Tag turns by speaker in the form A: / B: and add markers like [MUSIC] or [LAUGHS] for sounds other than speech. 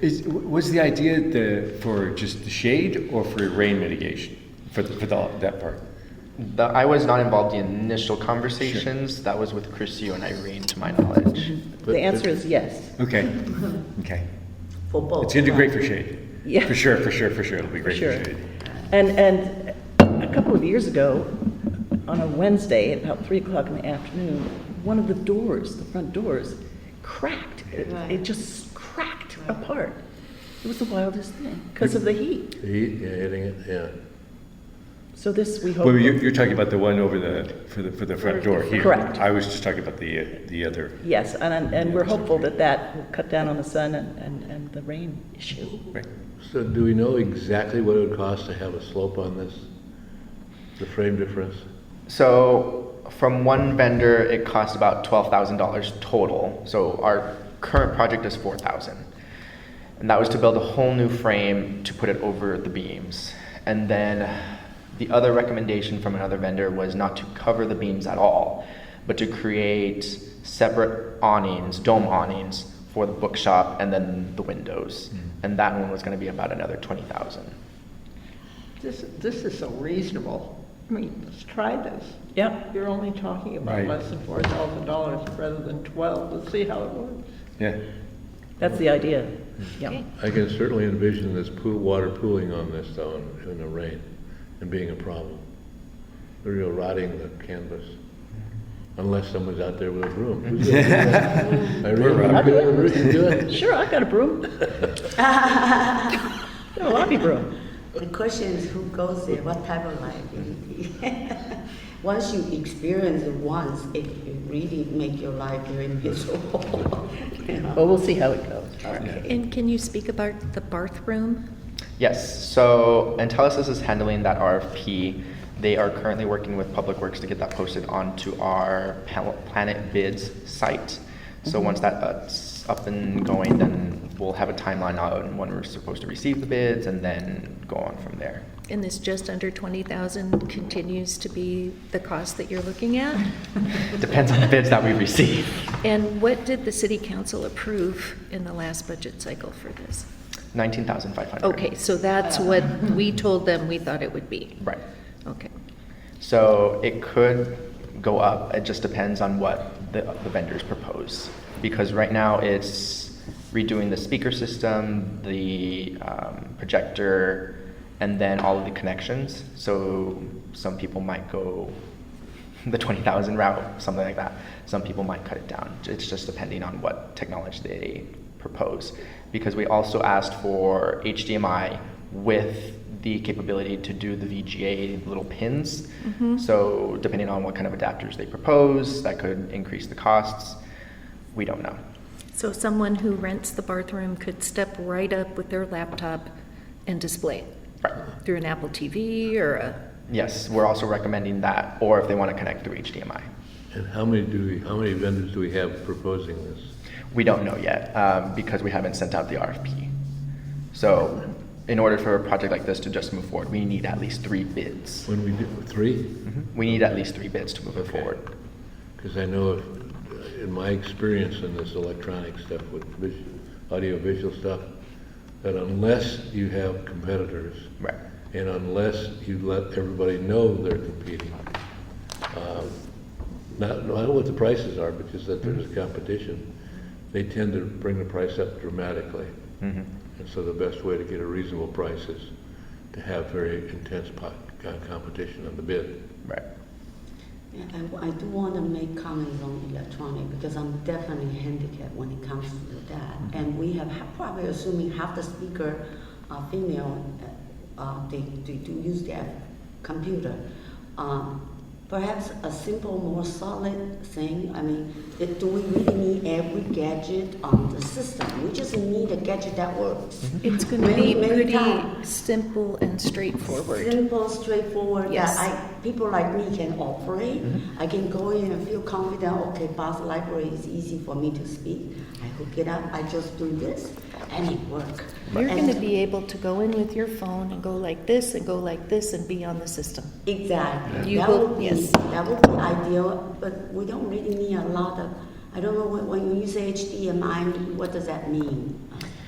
A: Is, was the idea the, for just the shade or for rain mitigation, for, the, for the, that part?
B: The, I was not involved in the initial conversations. That was with Chrisio and Irene, to my knowledge.
C: The answer is yes,
A: Okay, okay.
C: for both.
A: It's gonna do great for shade.
C: Oh, Yeah.
A: For sure, for sure, for sure, it'll be great for
C: Sure.
A: shade.
C: And, and a couple of years ago, on a Wednesday, at about three o'clock in the afternoon, one of the doors, the front doors, cracked. It, it just cracked apart. It was the wildest thing, because of the heat.
D: The heat, yeah, hitting it, yeah.
C: So this, we hope.
A: Well, you're, you're talking about the one over the, for the, for the front door here.
C: Correct.
A: I was just talking about the, uh, the other,
C: Yes, and, and we're hopeful that that will cut down on the sun and, and, and the rain issue.
A: right.
D: So do we know exactly what it would cost to have a slope on this? The frame difference?
B: So, from one vendor, it costs about twelve thousand dollars total. So our current project is four thousand, and that was to build a whole new frame to put it over the beams. And then the other recommendation from another vendor was not to cover the beams at all, but to create separate awnings, dome awnings for the bookshop and then the windows. And that one was going to be about another twenty thousand.
E: This, this is so reasonable. I mean, let's try this.
C: Yep.
E: You're only talking about
A: Right.
E: less than four thousand dollars rather than twelve. Let's see how it works.
A: Yeah,
C: That's the idea. Yeah.
D: I can certainly envision this pool, water pooling on this though in, in the rain and being a problem. The real rotting the canvas. Unless someone's out there with a broom. Who's gonna do that? Irene,
C: rotting.
D: you gonna- you gonna do it?
C: Sure, I've got a broom. Got a lobby broom.
F: The question is who goes there, what type of liability? [LAUGHS] Once you experience it once, it it really make your life very miserable. [LAUGHS] you know.
C: Well, we'll see how it goes.
G: And can you speak about the bathroom?
B: Yes, so Intellisys is handling that RFP. They are currently working with Public Works to get that posted onto our Pal- Planet Bids site. So once that's up and going, then we'll have a timeline on when we're supposed to receive the bids and then go on from there.
G: And this just under 20,000 continues to be the cost that you're looking at?
B: [LAUGHS] Depends on the bids that we receive.
G: And what did the city council approve in the last budget cycle for this?
B: 19,500.
G: Okay, so that's what we told them we thought it would be.
B: Right.
G: Okay.
B: So it could go up. It just depends on what the, the vendors propose. Because right now it's redoing the speaker system, the um, projector, and then all of the connections. So some people might go the 20,000 route, something like that. Some people might cut it down. It's just depending on what technology they propose. Because we also asked for HDMI with the capability to do the VGA little pins. So, depending on what kind of adapters they propose, that could increase the costs. We don't know.
G: So someone who rents the bathroom could step right up with their laptop and display it
B: Right.
G: through an Apple TV or a,
B: Yes, we're also recommending that, or if they want to connect through HDMI.
D: And how many do we, how many vendors do we have proposing this?
B: We don't know yet um, because we haven't sent out the RFP. So, in order for a project like this to just move forward, we need at least three bids.
D: When we do, three?
B: We need at least three bids to move it forward.
D: Because I know, if- in my experience in this electronic stuff with visual, audiovisual stuff, that unless you have competitors,
B: Right.
D: and unless you let everybody know they're competing, um, not, I don't know what the prices are, but just that there's competition, they tend to bring the price up dramatically. And so the best way to get a reasonable price is to have very intense po- co- competition on the bid.
B: Right.
F: Yeah, I, I do want to make comments on electronic because I'm definitely handicapped when it comes to that. And we have ha- probably assuming half the speaker are female, uh, uh, they, they do use their computer. Um, perhaps a simple, more solid thing. I mean, that do we really need every gadget on the system? We just need a gadget that works.
G: it's going to be
F: Many- many
G: pretty
F: times.
G: simple and straightforward.
F: Simple, straightforward.
G: Yes.
F: That I, people like me can operate. I can go in and feel confident. Okay, Bath Library is easy for me to speak. I hook it up. I just do this, and it work.
G: You're
F: And-
G: going to be able to go in with your phone and go like this and go like this and be on the system.
F: Exactly.
G: You
F: That
G: will-
F: would be-
G: yes.
F: That would be ideal, but we don't really need a lot of, I don't know, when- when you say HDMI, what does that mean?